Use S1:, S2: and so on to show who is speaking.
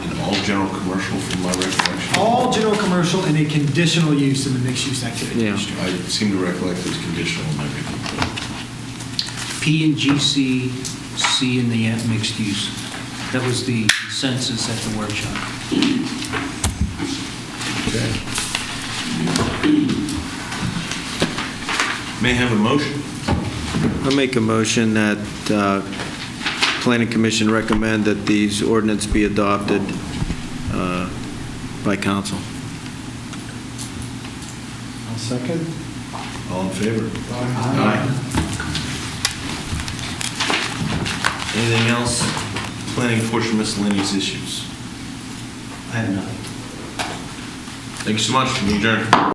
S1: general commercial from my recollection.
S2: All general commercial and a conditional use in the mixed-use activity
S3: Yeah.
S2: district.
S1: I seem to recollect it's conditional in my opinion.
S3: P and GC, C in the end, mixed use. That was the census at the workshop.
S1: Okay. May I have a motion?
S4: I make a motion that uh, Planning Commission recommend that these ordinance be adopted uh, by council.
S5: I'll second.
S1: All in favor? Anything else? Planning portion miscellaneous issues.
S3: I have nothing.
S1: Thank you so much. We adjourn.